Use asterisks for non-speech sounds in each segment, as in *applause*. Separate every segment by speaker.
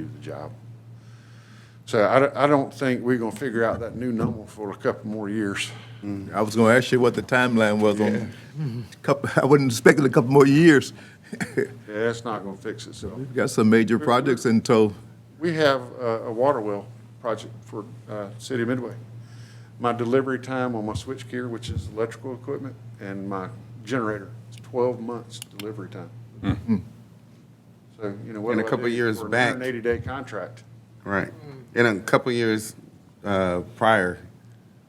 Speaker 1: do the job. So I, don't- I don't think we're gonna figure out that new number for a couple more years.
Speaker 2: I was gonna ask you what the timeline was on, couple, *laughs* I wouldn't expect it a couple more years. *laughs*
Speaker 1: Yeah, that's not gonna fix itself.
Speaker 2: We've Got some major projects in tow.
Speaker 1: We have a, a water well project for, uh, City of Midway. My delivery time on my switch gear, which is electrical equipment, and my generator, it's twelve months delivery time. So, you know, what
Speaker 3: And a
Speaker 1: do I
Speaker 3: couple
Speaker 1: do
Speaker 3: years
Speaker 1: for an
Speaker 3: back-
Speaker 1: hundred and eighty day contract?
Speaker 3: Right. In a couple years uh, prior,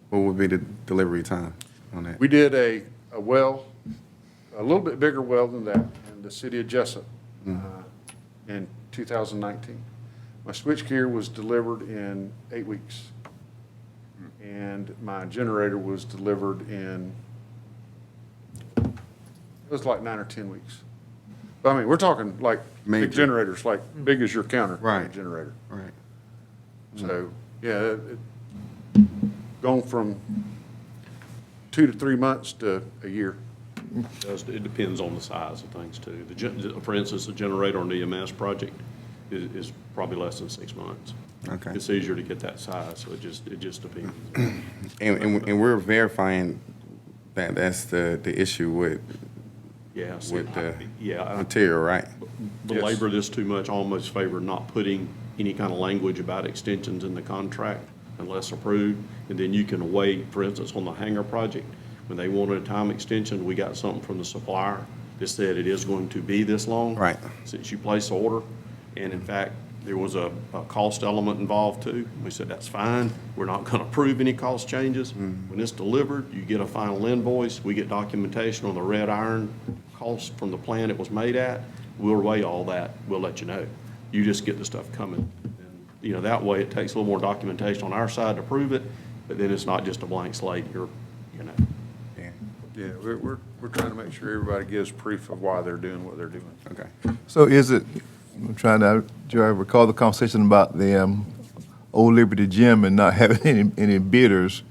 Speaker 3: what would be the delivery time on that?
Speaker 1: We did a, a well, a little bit bigger well than that in the city of Jessup uh,
Speaker 3: Mm-hmm.
Speaker 1: in 2019. My switchgear was delivered in eight weeks. And my generator was delivered in, it was like nine or 10 weeks. But I mean, we're talking like
Speaker 3: Major.
Speaker 1: big generators, like big as your counter. kind of
Speaker 3: Right.
Speaker 1: Generator.
Speaker 3: Right.
Speaker 1: So, yeah, it- it- gone from two to three months to a year.
Speaker 4: does- It depends on the size of things, too. The gen- For instance, the generator on the EMS project is is probably less than six months.
Speaker 3: Okay.
Speaker 4: It's easier to get that size, so it just, it
Speaker 3: *clears throat*
Speaker 4: just depends.
Speaker 3: And, and, and we're verifying that that's the, the issue with
Speaker 4: Yeah, so
Speaker 3: with the
Speaker 4: I- yeah, I-
Speaker 3: material, right?
Speaker 4: belabor this too much, I almost favor not putting any kind of language about extensions in the contract unless approved. And then you can wait, for instance, on the hangar project, when they wanted a time extension, we got something from the supplier that said it is going to be this long.
Speaker 3: Right.
Speaker 4: Since you placed the order. And in fact, there was a, a cost element involved too. We said, that's fine. We're not going to approve any cost changes. When it's delivered, you get a final invoice. We get documentation on the red iron cost from the plant it was made at. We'll weigh all that. We'll let you know. You just get the stuff coming. And, You know, that way it takes a little more documentation on our side to prove it, but then it's not just a blank slate. You're, you know.
Speaker 3: Yeah.
Speaker 1: Yeah, we're, we're, we're trying to make sure everybody gives proof of why they're doing what they're doing.
Speaker 3: Okay.
Speaker 2: So is it, I'm trying to, do I recall the conversation about the, um, Old Liberty Gym and not *laughs* having any, any bidders?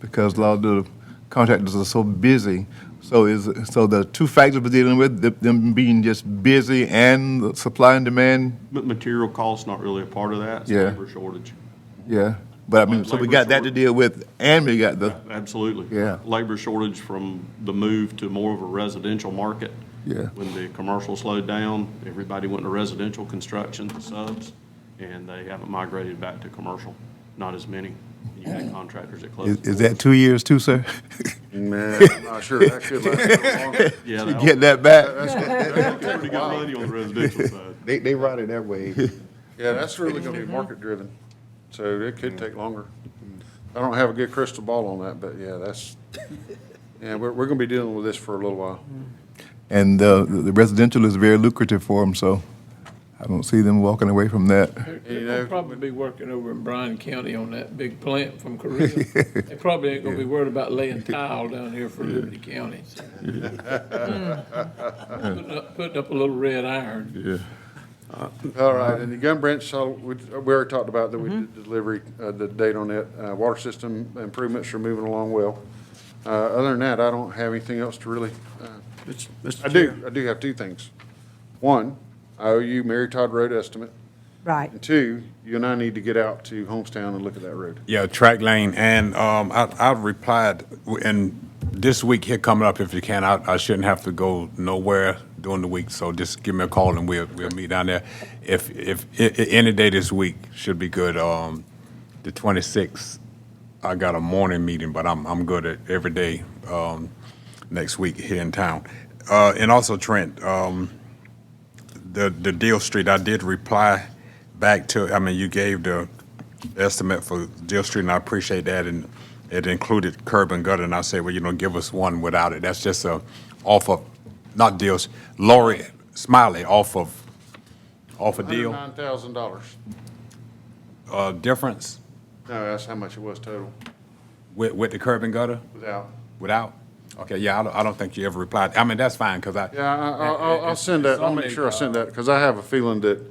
Speaker 2: Because a lot of the contractors are so busy. So is, so the two factors we're dealing with, the- them being just busy and the supply and demand?
Speaker 4: But material cost's not really a part of that. It's
Speaker 2: Yeah.
Speaker 4: labor shortage.
Speaker 2: Yeah, but I mean, so we got that to deal with and we got the,
Speaker 4: Absolutely.
Speaker 2: Yeah.
Speaker 4: Labor shortage from the move to more of a residential market.
Speaker 2: Yeah.
Speaker 4: When the commercial slowed down, everybody went to residential construction subs, and they haven't migrated back to commercial, not as many. You had contractors that
Speaker 2: is,
Speaker 4: closed.
Speaker 2: is that two years too, sir? *laughs*
Speaker 1: Man, *laughs* I'm not sure that could last longer.
Speaker 4: Yeah,
Speaker 2: To
Speaker 4: that
Speaker 2: get that back?
Speaker 4: was *laughs* pretty good money on the residential side.
Speaker 3: They, they ride it that way.
Speaker 1: Yeah, that's really gonna be market driven, so it could take longer. I don't have a good crystal ball on that, but yeah, that's, yeah, we're, we're gonna be dealing with this for a little while.
Speaker 2: And uh, the residential is very lucrative for them, so I don't see them walking away from
Speaker 5: *laughs*
Speaker 2: that.
Speaker 1: You
Speaker 5: They'll
Speaker 1: know-
Speaker 5: probably be working over in Bryan County on that big plant
Speaker 1: *laughs*
Speaker 5: from Korea. They probably ain't gonna be worried about laying tile down here for Liberty
Speaker 1: *laughs*
Speaker 5: County. so. *laughs* Putting up- Putting up a little red iron.
Speaker 2: Yeah.
Speaker 1: All right, and the gun branch, so we, we already talked about that we did delivery, uh, the date on it. Uh, water system improvements are moving along well. Uh, other than that, I don't have anything else to really, uh, I do, I do have two things. One, I owe you Mary Todd Road estimate,
Speaker 6: Right.
Speaker 1: and two, you and I need to get out to Homestown and look at that road.
Speaker 7: Yeah, track lane, and um, I, I replied, and this week here coming up, if you can, I, I shouldn't have to go nowhere during the week, so just give me a call and we'll, we'll meet down there. If, if, i- i- any day this week should be good, um, the twenty-sixth, I got a morning meeting, but I'm, I'm good at every day, um, next week here in town. Uh, and also Trent, um, the, the Deal Street, I did reply back to, I mean, you gave the estimate for Deal Street, and I appreciate that, and it included curb and gutter, and I said, well, you know, give us one without it. That's just a, off of, not Deals, Lori Smiley, off of, off of Deal,
Speaker 1: Nine thousand dollars.
Speaker 7: uh, difference
Speaker 1: No, that's how much it was total,
Speaker 7: with, with the curb and gutter,
Speaker 1: without.
Speaker 7: without? Okay, yeah, I don't, I don't think you ever replied. I mean, that's fine, because I.
Speaker 1: Yeah, I, I- I'll, I'll send that, I'll make sure I send that, because I have a feeling that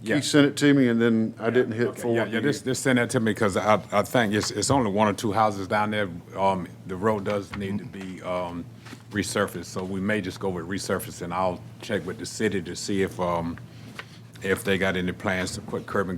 Speaker 7: Yeah.
Speaker 1: he sent it to me and then I didn't hit
Speaker 7: Okay, Yeah,
Speaker 1: forward.
Speaker 7: yeah,
Speaker 1: to you.
Speaker 7: just, just send that to me, because I, I think it's, it's only one or two houses down there. Um, the road does need to be, um, resurfaced, so we may just go with resurfacing. I'll check with the city to see if, um, if they got any plans to put curb and